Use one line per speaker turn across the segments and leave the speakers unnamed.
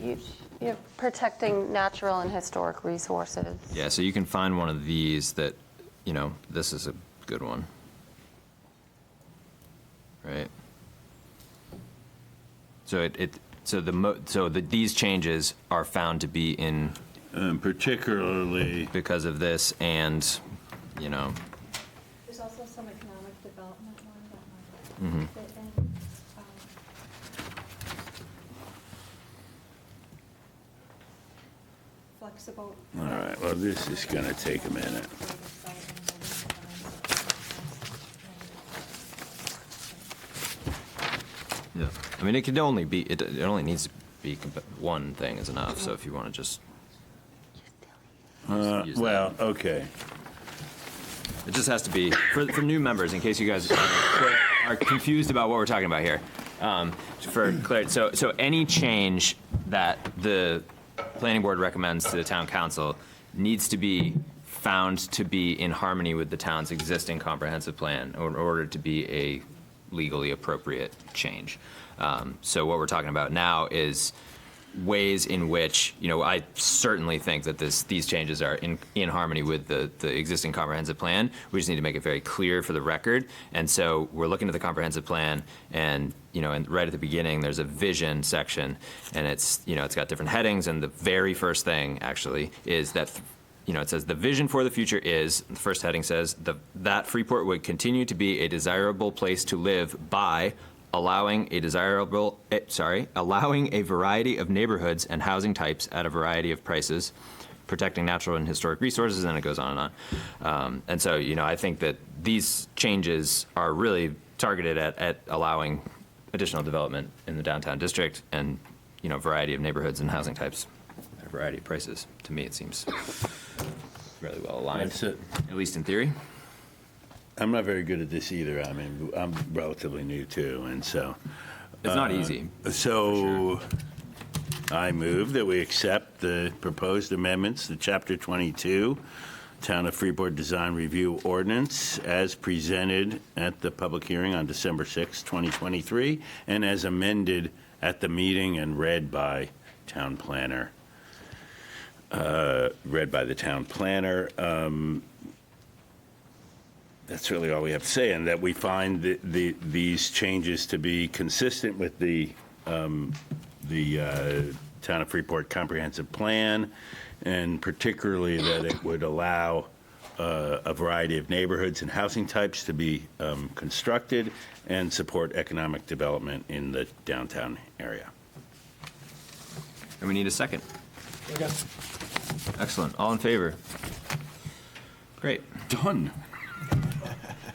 you- you're protecting natural and historic resources.
Yeah, so you can find one of these that, you know, this is a good one. Right? So it, it, so the mo, so the, these changes are found to be in
Um, particularly,
because of this and, you know,
There's also some economic development one that might fit
Mm-hmm.
in. Um, Flexible.
all right, well, this is going to take a minute.
yeah. I mean, it could only be, it, it only needs to be, compa- one thing is enough, so if you want to just,
Uh,
use that.
Well, okay.
it just has to be, for, for new members, in case you guys are confused about what we're talking about here. Um, For clarity, so, so any change that the planning board recommends to the town council needs to be found to be in harmony with the town's existing comprehensive plan in order to be a legally appropriate change. Um, So what we're talking about now is ways in which, you know, I certainly think that this, these changes are in, in harmony with the, the existing comprehensive plan. We just need to make it very clear for the record. And so we're looking at the comprehensive plan and, you know, and right at the beginning, there's a vision section and it's, you know, it's got different headings and the very first thing actually is that th- you know, it says the vision for the future is, the first heading says, the, that Freeport would continue to be a desirable place to live by allowing a desirable, eh, sorry, allowing a variety of neighborhoods and housing types at a variety of prices, protecting natural and historic resources, and it goes on and on. Um, and so, you know, I think that these changes are really targeted at, at allowing additional development in the downtown district and, you know, variety of neighborhoods and housing types at a variety of prices. To me, it seems really well aligned,
That's it.
at least in theory.
I'm not very good at this either. I mean, I'm relatively new too, and so.
It's
Uh,
not easy.
So I move that we accept the proposed amendments to Chapter 22, Town of Freeport Design Review Ordinance, as presented at the public hearing on December 6, 2023, and as amended at the meeting and read by town planner, uh, read by the town planner. Um, That's really all we have to say, and that we find the- the, these changes to be consistent with the the uh, Town of Freeport Comprehensive Plan, and particularly that it would allow uh, a variety of neighborhoods and housing types to be um, constructed and support economic development in the downtown area.
And we need a second. Excellent. All in favor? Great.
Done.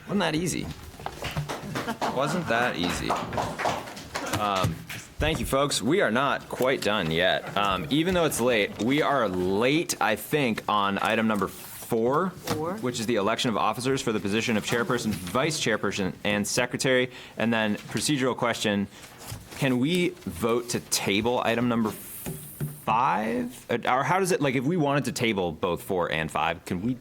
Wasn't that easy? Wasn't that easy? Um, thank you, folks. We are not quite done yet. Um, even though it's late, we are late, I think, on item number four, which is the election of officers for the position of chairperson, vice chairperson, and secretary. And then procedural question, can we vote to table item number five? Uh, Or how does it, like, if we wanted to table both four and five, can we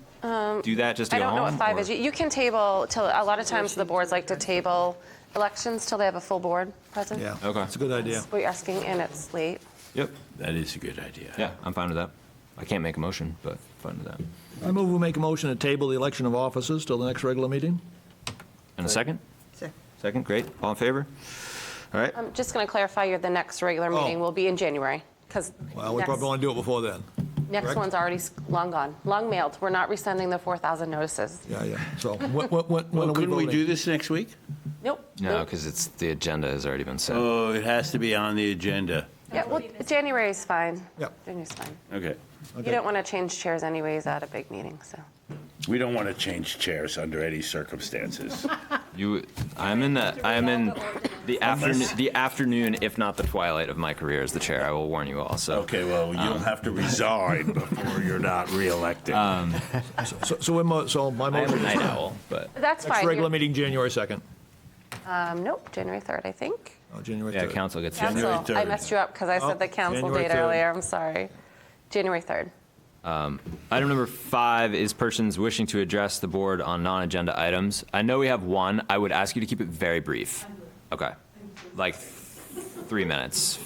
do that just to
Um, I
go
don't know what
home,
five
or-
is. You you can table till, a lot of times the boards like to table elections till they have a full board present.
Yeah.
Okay.
It's a good idea.
We're asking, and it's late.
Yep.
That is a good idea.
Yeah, I'm fine with that. I can't make a motion, but fine with that.
I move we make a motion to table the election of officers till the next regular meeting.
And a second?
Second.
Second, great. All in favor? All right.
I'm just going to clarify, your, the next regular
Oh.
meeting will be in January, because
Well, we probably want to do it before then.
next
correct?
one's already s- long gone, long mailed. We're not resending the 4,000 notices.
Yeah, yeah. So when, when, when when
Well,
are we
couldn't we do
voting?
this next week?
Nope.
No,
nope.
because it's, the agenda has already been set.
Oh, it has to be on the agenda.
Yeah, well, January is fine.
Yep.
January's fine.
Okay.
You don't want to change chairs anyways at a big meeting, so.
We don't want to change chairs under any circumstances.
You, I'm in the, I am in the afternoon,
Unless-
the afternoon, if not the twilight of my career as the chair. I will warn you all, so.
Okay, well, you'll have to resign before you're not reelected.
So, so we're mo- so my
I am a
motion
night
is
owl, but.
That's
next
fine.
regular
You're-
meeting, January 2nd.
Um, nope, January 3rd, I think.
Oh, January
Yeah,
3rd.
council gets. to-
Council, I
3rd.
messed you up because I
Oh,
said the council
January
date
3rd.
earlier, I'm sorry. January 3rd.
Item number five is persons wishing to address the board on non-agenda items. I know we have one. I would ask you to keep it very brief. Okay. Like three minutes.